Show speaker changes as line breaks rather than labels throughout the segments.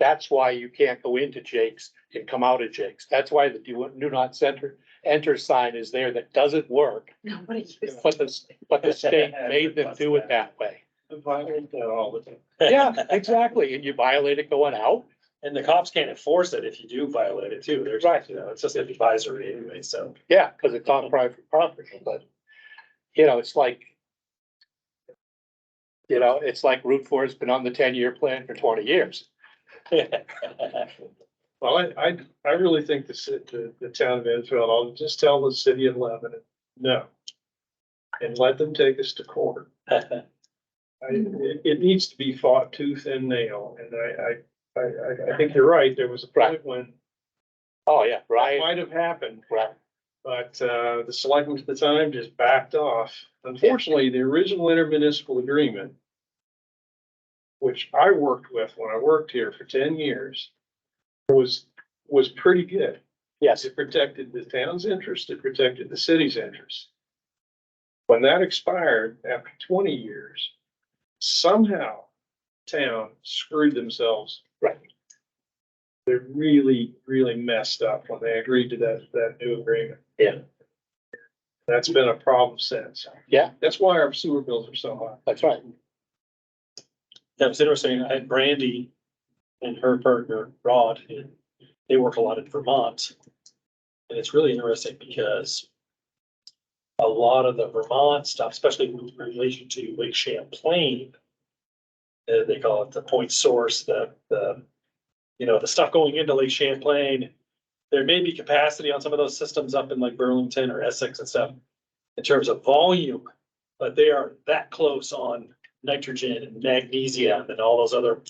That's why you can't go into Jake's and come out of Jake's. That's why the do, do not center, enter sign is there that doesn't work.
Nobody uses.
But the, but the state made them do it that way. Yeah, exactly. And you violate it going out.
And the cops can't enforce it if you do violate it too. There's,
Right.
you know, it's just advisory anyway, so.
Yeah, because it's on private property, but, you know, it's like. You know, it's like Route Four has been on the ten-year plan for twenty years.
Well, I, I, I really think the, ci- the, the town of Enfield, I'll just tell the city of Lebanon, no. And let them take us to court. I, it, it needs to be fought tooth and nail, and I, I, I- I, I think you're right, there was a point when
Oh, yeah,
that
right,
might have happened,
right.
but, uh, the selectmen at the time just backed off. Unfortunately, the original intermunicipal agreement, which I worked with when I worked here for ten years, was, was pretty good.
Yes,
It protected the town's interest, it protected the city's interest. When that expired after twenty years, somehow town screwed themselves.
Right.
They really, really messed up when they agreed to that, that new agreement.
Yeah.
That's been a problem since.
Yeah.
That's why our sewer bills are so high.
that's right.
That was interesting. I had Brandy and her partner Rod, and they work a lot in Vermont. And it's really interesting because a lot of the Vermont stuff, especially in relation to Lake Champlain, uh, they call it the point source, the, the, you know, the stuff going into Lake Champlain. There may be capacity on some of those systems up in like Burlington or Essex and stuff in terms of volume, but they are that close on nitrogen and magnesium and all those other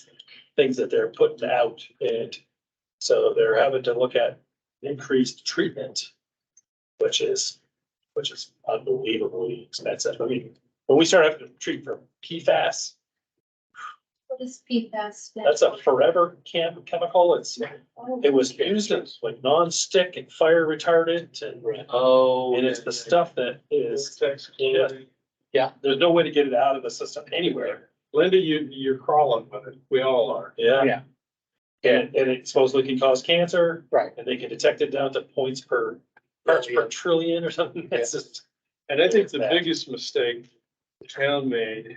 things that they're putting out. And so they're having to look at increased treatment, which is, which is unbelievably expensive. I mean, when we start having to treat for PFAS,
What is PFAS?
that's a forever chem- chemical. It's, it was used as like nonstick and fire retardant and
Oh.
and it's the stuff that is,
Vortex,
Yeah.
Yeah.
there's no way to get it out of the system anywhere.
Linda, you, you're crawling with it. We all are.
Yeah.
Yeah.
And, and it supposedly can cause cancer.
Right.
And they can detect it down to points per, parts per
Billion.
trillion or something. It's just,
And I think the
Back.
biggest mistake the town made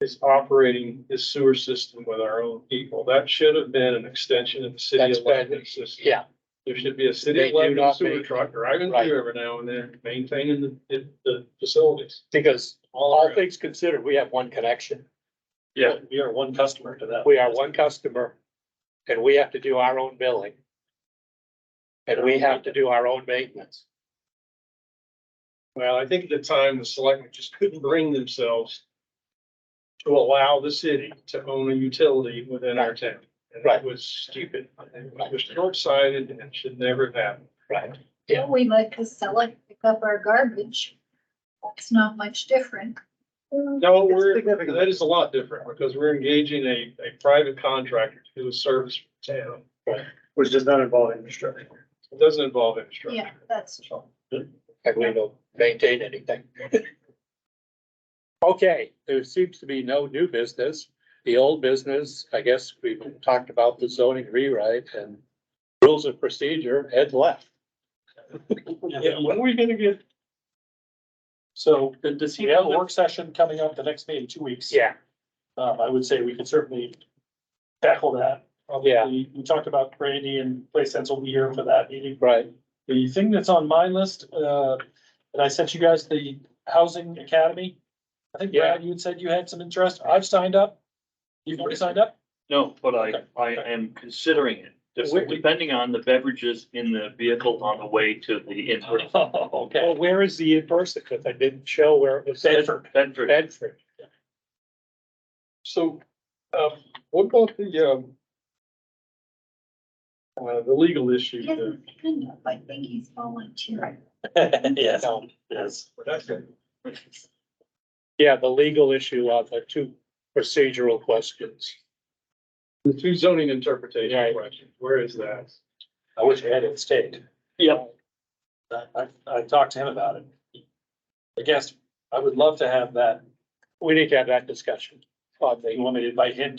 is operating this sewer system with our own people. That should have been an extension of the city
That's
of
bad.
Lebanon system.
Yeah.
There should be a
They
city of
do
Lebanon
not
sewer
make-
truck driving
Right.
through every now and then, maintaining the- the, the facilities.
Because all
around.
things considered, we have one connection.
yeah, we are one customer to them.
We are one customer and we have to do our own billing. And we have to do our own maintenance.
Well, I think at the time, the selectmen just couldn't bring themselves to allow the city to own a utility within our town. And that
Right.
was stupid. It was short-sighted and should never have happened.
Right. yeah.
Well, We like to sell it, pick up our garbage. That's not much different.
No, we're, that is a lot different because we're engaging a, a private contractor to do a service for the town.
Which does not involve infrastructure.
It doesn't involve
Yeah,
infrastructure.
that's true.
and we don't maintain anything. Okay, there seems to be no new business. The old business, I guess we've talked about the zoning rewrite and rules of procedure, Ed left.
Yeah.
When are we gonna get?
So does he have a work session coming up the next day in two weeks?
Yeah.
Um, I would say we could certainly tackle that.
Yeah.
We, we talked about Brandy and Play Sense will be here for that meeting.
Right,
The thing that's on my list, uh, and I sent you guys the Housing Academy. I think Brad, you had said you had some interest. I've signed up. You've already signed up?
No, but I,
Okay.
I am considering it,
Just-
We're depending on the beverages in the vehicle on the way to the in-person.
Oh, Okay.
well, where is the in-person? Cause I didn't show where it was.
Bedford.
Bedford.
Bedford,
So, um, what about the, um, uh, the legal issue?
He
the-
hasn't signed up. I think he's volunteering.
Yes, yes.
yeah, the legal issue of the two procedural questions.
The two zoning interpretation
Right.
questions, where is that?
I wish I had it stayed.
Yep.
I, I, I talked to him about it. I guess I would love to have that.
We need to have that discussion on the
You want me to invite him